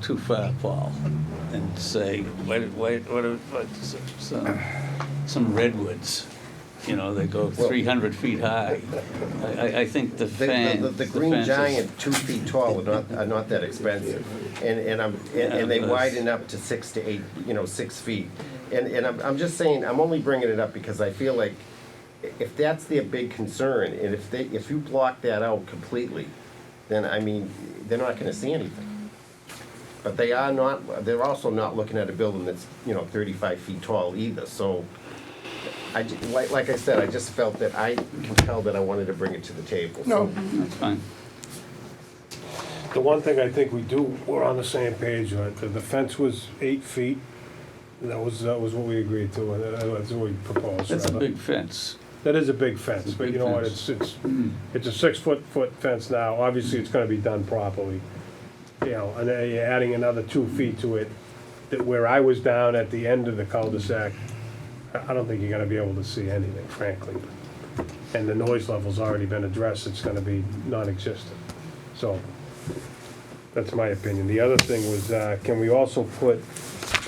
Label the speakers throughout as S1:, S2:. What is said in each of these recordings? S1: too far, Paul, and say, what, what, what, what, some, some redwoods, you know, they go
S2: Well-
S1: three hundred feet high. I, I, I think the
S2: The-
S1: fan,
S2: The,
S1: the
S2: the, the green
S1: fence is-
S2: giant, two feet tall, are not, are not that expensive. And, and I'm, and- and they
S1: Yeah, but-
S2: widen up to six to eight, you know, six feet. And, and I'm, I'm just saying, I'm only bringing it up because I feel like i- if that's their big concern, and if they, if you block that out completely, then I mean, they're not gonna see anything. But they are not, they're also not looking at a building that's, you know, thirty-five feet tall either, so. I, ju- like, like I said, I just felt that I compelled that I wanted to bring it to the table.
S3: No,
S1: That's fine.
S3: the one thing I think we do, we're on the same page on, the the fence was eight feet. and That was, that was what we agreed to, and that- that's what we proposed.
S1: That's a
S3: rather.
S1: big fence.
S3: That is a big fence,
S1: It's a
S3: but you
S1: big
S3: know what,
S1: fence. Hmm.
S3: it's, it's, it's a six-foot, foot fence now, obviously it's gonna be done properly. You know, and then you're adding another two feet to it, that where I was down at the end of the cul-de-sac, I, I don't think you're gonna be able to see anything, frankly. And the noise level's already been addressed, it's gonna be non-existent, so, that's my opinion. The other thing was, uh, can we also put,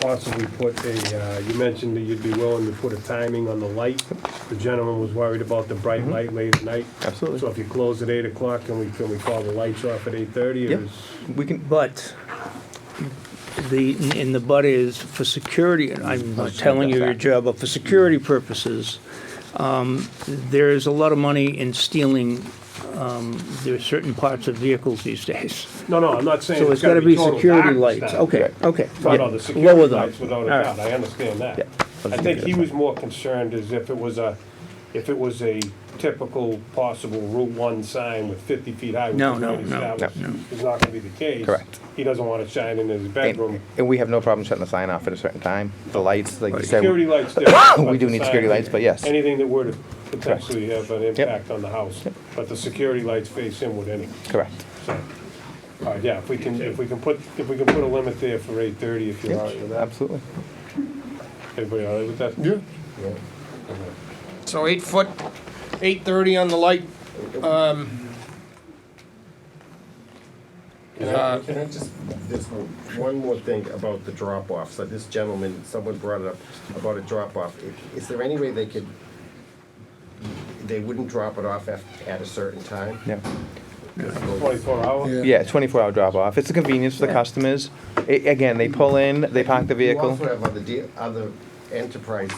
S3: possibly put a, uh, you mentioned that you'd be willing to put a timing on the light. The gentleman was worried about the bright
S4: Mm-hmm.
S3: light late at night.
S5: Absolutely.
S3: So if you close at eight o'clock, can we, can we call the lights off at eight thirty?
S5: Yep. We can,
S4: But the, and the but is for security, and I'm not telling you your job, but for security purposes, um, there is a lot of money in stealing, um, there are certain parts of vehicles these days.
S3: No, no, I'm not saying
S4: So
S3: it's
S4: it's got
S3: gotta
S4: to be
S3: total
S4: security
S3: darkness
S4: lights.
S3: now.
S4: Okay, okay.
S3: No, no,
S4: yeah,
S3: the security
S4: lower them.
S3: lights, without a
S4: All right.
S3: doubt, I understand
S5: Yeah.
S3: that. I think he was more concerned as if it was a, if it was a typical possible Route One sign with fifty feet high. which
S4: No,
S3: is
S4: no,
S3: what he
S4: no,
S3: established
S5: no.
S3: Is not gonna be the case.
S5: Correct.
S3: He doesn't wanna shine in his bedroom.
S5: and, and we have no problem shutting the sign off at a certain time. The lights, like you said,
S3: Security lights different.
S5: We do
S3: but
S5: need
S3: the
S5: security
S3: sign-
S5: lights, but yes.
S3: Anything that were to potentially have an impact on the house, but the security lights face inward anyway.
S5: correct.
S3: So, All right, yeah, if we can, if we can put, if we can put a limit there for eight thirty, if you're all right with that.
S5: Absolutely.
S3: Everybody all right with that? Yeah.
S6: So eight foot, eight thirty on the light. Um,
S2: Can I, can I just, there's one more thing about the drop-off, so this gentleman, someone brought it up about a drop-off. I- Is there any way they could, they wouldn't drop it off at, at a certain time?
S5: Yeah.
S3: Twenty-four hour?
S5: Yeah, 24 hour drop off. It's a convenience for the customers. A- again, they pull in, they park the
S2: You
S5: vehicle.
S2: also have other deal, other enterprise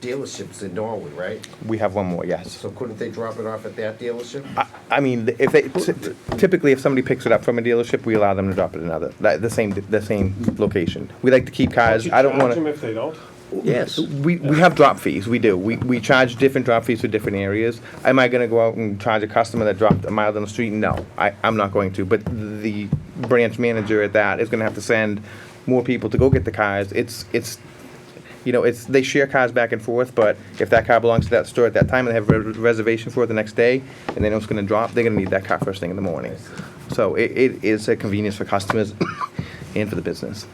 S2: dealerships in Norway, right?
S5: We have one more, yes.
S2: So couldn't they drop it off at that dealership?
S5: I, I mean, if they t- t- typically if somebody picks it up from a dealership, we allow them to drop it at another that, the same the same location. We like to keep cars. I don't
S3: Charge
S5: want
S3: them
S5: to.
S3: if they don't?
S4: Yes.
S5: We, we have drop fees. We do. We, we charge different drop fees for different areas. Am I going to go out and charge a customer that dropped a mile down the street? No, I, I'm not going to. But the branch manager at that is going to have to send more people to go get the cars. It's it's you know it's they share cars back and forth. But if that car belongs to that store at that time and they have a re- reservation for it the next day and they know it's going to drop, they're going to need that car first thing in the morning. So it, it is a convenience for customers and for the business.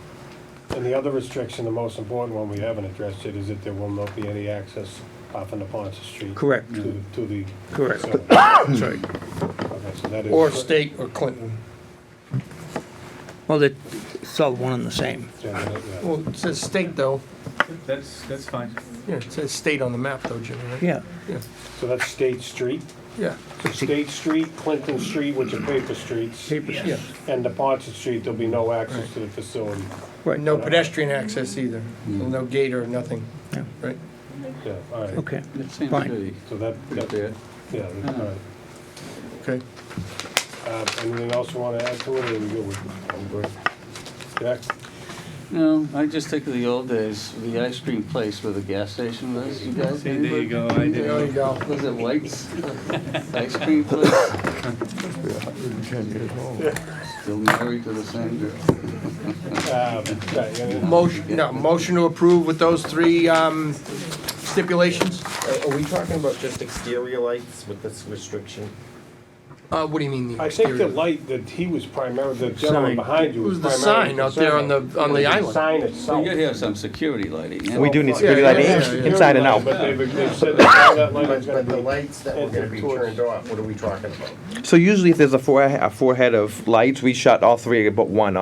S3: And the other restriction, the most important one we haven't addressed yet, is that there will not be any access off into Ponce Street.
S4: Correct.
S3: To, the- to the.
S4: Correct.
S3: facility. Mm.
S4: Sorry.
S3: Okay, so that is.
S6: or state or Clinton.
S4: Well, it's all one and the same.
S3: Yeah, yeah, yeah.
S6: Well, it says state though.
S1: That's, that's fine.
S6: Yeah, it says state on the map though, Jimmy. right?
S4: Yeah.
S6: Yeah,
S3: So that's State Street,
S6: yeah,
S3: So State Street, Clinton Street, which are paper streets,
S6: yeah.
S3: and the Ponce Street, there'll be no access to the facility.
S4: Right.
S6: No pedestrian access either. No gate or nothing,
S4: Yeah.
S6: right?
S3: Yeah, all right.
S4: Okay.
S1: That seems
S4: Fine.
S1: pretty,
S3: So that,
S1: pretty
S3: that,
S1: fair.
S3: yeah, Uh-huh. all right.
S6: Okay.
S3: Uh, anything else you wanna add to it, or are we good with? I'm good. Jack?
S1: No, I just think of the old days, the ice cream place where the gas station was, you guys.
S7: See, there you go, I
S1: remember?
S7: do.
S6: There you go.
S1: Was it White's Ice Cream Place? Still married to the same girl.
S3: Um, yeah, yeah,
S6: Motion, no, motion to approve with those three um, stipulations?
S2: Are, are we talking about just exterior lights with this restriction?
S6: Uh, what do you mean the
S3: I think the
S6: exterior?
S3: light that he was primarily, the gentleman
S4: Sign.
S3: behind you was
S6: It was the
S3: primarily.
S6: sign out there on
S3: concerned
S6: the- on the
S3: with
S6: island.
S3: Sign
S1: We
S3: itself.
S1: gotta have some security lighting. yeah.
S5: We do need
S3: Yeah,
S5: security
S6: yeah,
S5: lighting
S6: yeah,
S5: ins-
S6: yeah.
S5: inside and out.
S3: But they've, they've said that that light
S2: But,
S3: is gonna
S2: but
S3: be.
S2: the lights that were gonna be
S3: Towards-
S2: turned off, what are we talking about?
S5: So usually if there's a four, a four head of lights, we shut all three but one